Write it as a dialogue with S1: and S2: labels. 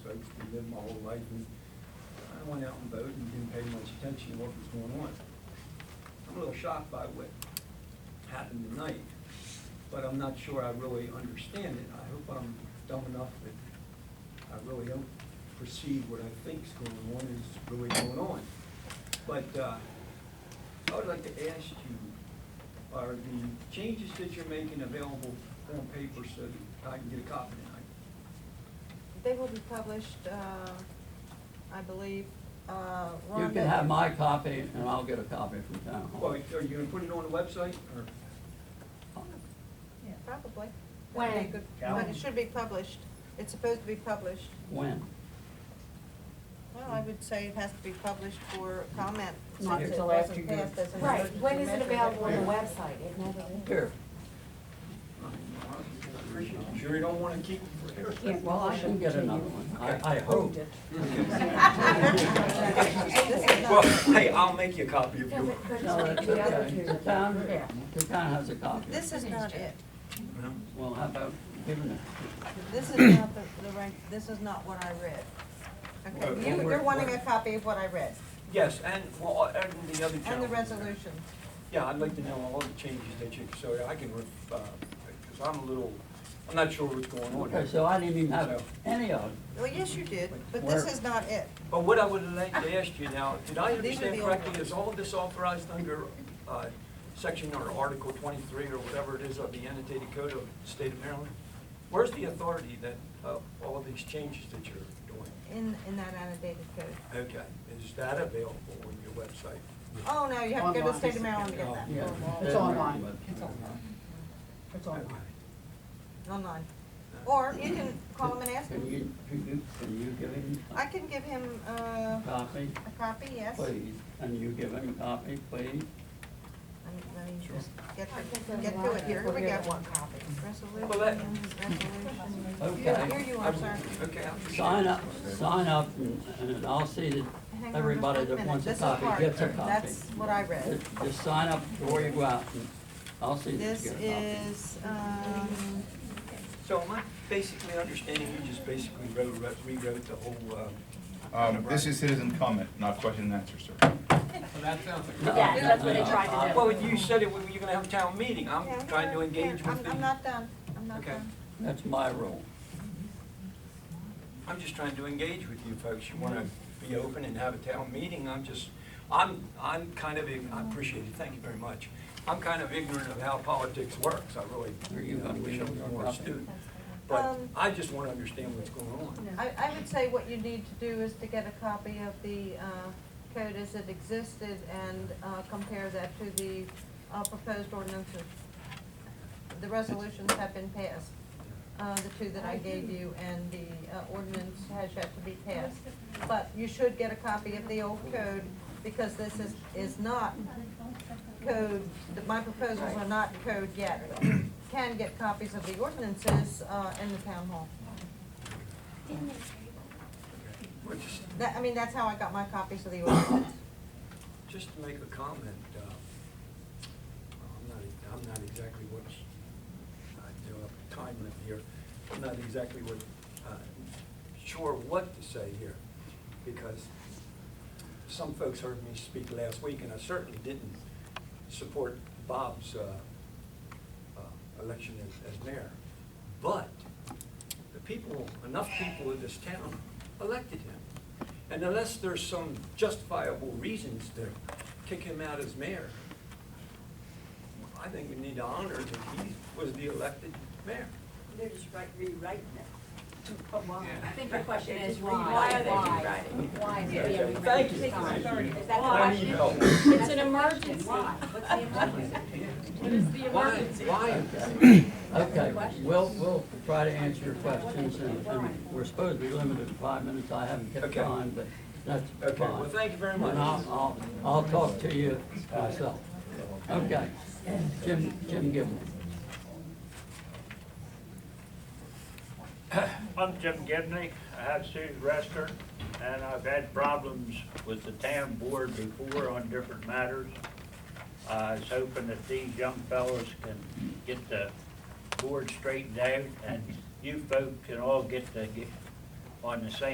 S1: folks, been living my whole life, and I went out and voted and didn't pay much attention to what was going on. I'm a little shocked by what happened tonight, but I'm not sure I really understand it. I hope I'm dumb enough that I really don't perceive what I think's going on is really going on. But, uh, I would like to ask you, are the changes that you're making available on paper so that I can get a copy tonight?
S2: They will be published, uh, I believe, uh,
S3: You
S2: Rhonda.
S3: can have my copy and I'll get a copy from town
S1: Well,
S3: hall.
S1: are you gonna put it on the website, or?
S2: Yeah, Probably.
S4: When?
S2: That'd be good. But
S1: Calendar.
S2: it should be published. It's supposed to be published.
S3: When?
S2: Well, I would say it has to be published for comment.
S3: Not
S2: since it
S5: till
S2: wasn't
S5: after you-
S2: passed as an
S4: Right,
S2: emergency
S4: when is it
S2: measure.
S4: available on the website? It never is.
S3: Here.
S1: I'm Sure you don't wanna keep it for here?
S3: Well, I can get another one. I, I hope.
S2: This is
S1: Well,
S2: not-
S1: hey, I'll make you a copy if
S4: No,
S1: you
S4: but- but
S3: No,
S4: it's
S3: that's
S4: the other
S3: okay. The
S4: two.
S3: town, the town has a copy.
S2: This is not it.
S1: want.
S3: Well, how about giving it?
S2: This is not the, the right, this is not what I read.
S1: Well,
S2: Okay, you,
S1: we're-
S2: you're wanting
S1: we're-
S2: a copy of what I read
S1: Yes, and, well, uh, and the other
S2: and the
S1: gentleman.
S2: resolution.
S1: Yeah, I'd like to know all the changes that you, so I can, uh, cause I'm a little, I'm not sure what's going on
S3: Okay,
S1: here.
S3: so I didn't even have
S1: So-
S3: any of it.
S2: Well, yes, you did, but
S3: Where?
S2: this is not it.
S1: But what I would like to ask you now, did I
S2: These are
S1: understand
S2: the old
S1: correctly,
S2: ones.
S1: is all of this authorized under uh, section or article twenty-three or whatever it is of the annotated code of the state of Maryland? Where's the authority that, uh, all of these changes that you're doing?
S2: In, in that annotated code.
S1: Okay, is that available on your website?
S2: Oh, no, you have to go to the state of Maryland to get
S1: Online.
S2: that.
S3: Yeah.
S5: It's online. It's online. It's online.
S1: Okay.
S2: Online. Or you can call him and ask
S3: Can
S2: him.
S3: you, can you, can you give him
S2: I can give him, uh,
S3: a copy,
S2: a copy, yes. Let me,
S3: please? And you give him a copy, please?
S2: let me just get,
S4: I think
S2: to-
S4: there's
S2: get
S4: a
S2: to
S4: lot
S2: it here. Here
S4: of
S2: we
S4: people
S2: go.
S4: that want copies.
S1: Well, that-
S2: Resolutions, resolutions.
S3: Okay.
S2: Here you are, sir.
S1: Okay, I'm just.
S3: Sign up, sign up and, and I'll see that
S2: Hang on
S3: everybody
S2: just one
S3: that
S2: minute.
S3: wants a
S2: This is
S3: copy
S2: hard.
S3: gets a copy.
S2: That's what I read.
S3: Just- Just sign up before you go out and I'll see that
S2: This
S3: you get a copy.
S2: is, um,
S1: So am I basically understanding you just basically wrote, wrote- rewrote the whole, uh?
S6: Um, this is citizen comment, not question and answer, sir.
S3: No,
S4: Yeah, that's what they
S3: no,
S4: tried to do.
S1: Well, you said it, when you're gonna have a town meeting, I'm
S2: yeah,
S1: trying to
S2: here, here.
S1: engage
S2: I'm-
S1: with the.
S2: I'm not done. I'm not
S1: Okay.
S2: done.
S3: That's my rule.
S1: I'm just trying to engage with you folks. You want to be open and have a town meeting, I'm just, I'm, I'm kind of, ig- I appreciate it, thank you very much. I'm kind of ignorant of how politics works, I really,
S3: Are you
S1: you know, I
S3: gonna
S1: wish I
S3: give
S1: was
S3: me a
S1: more
S3: copy?
S1: astute. But
S2: Um,
S1: I just want to understand what's going on.
S2: I, I would say what you need to do is to get a copy of the uh, code as it existed and uh, compare that to the uh, proposed ordinances. The resolutions have been passed, uh, the two that I gave you, and the uh, ordinance has yet to be passed. But you should get a copy of the old code, because this is, is not code, that my proposals are not code yet. but you Can get copies of the ordinances uh, in the town hall.
S1: Well, just-
S2: That, I mean, that's how I got my copies of the ordinance.
S1: Just to make a comment, uh, I'm not, I'm not exactly what, I do have a time limit here, I'm not exactly what, uh, sure what to say here, because some folks heard me speak last week, and I certainly didn't support Bob's uh, uh, election as- as mayor. But the people, enough people in this town elected him. And unless there's some justifiable reasons to kick him out as mayor, I think we need to honor that he was the elected mayor.
S7: They're just right, rewriting it to put one.
S4: I think the question is why?
S7: Why are they
S4: Why?
S7: rewriting?
S4: Why?
S1: Yeah,
S4: Yeah, we
S1: thank
S4: write
S1: you.
S4: it down.
S1: Thank you.
S4: Is that the
S1: I need
S4: question?
S1: help.
S4: It's an emergency.
S7: Why? What's the emergency?
S1: Why, why?
S3: Okay, we'll, we'll try to answer your questions and, and we're supposed to be limited to five minutes. I haven't kept
S1: Okay.
S3: time, but that's fine.
S1: Okay, well, thank you very much.
S3: And I'll, I'll, I'll talk to you myself. Okay. Jim, Jim Gibbon.
S8: I'm Jim Gibney. I have Sue's restaurant, and I've had problems with the town board before on different matters. I was hoping that these young fellows can get the board straightened out, and you folks can all get to, get on the same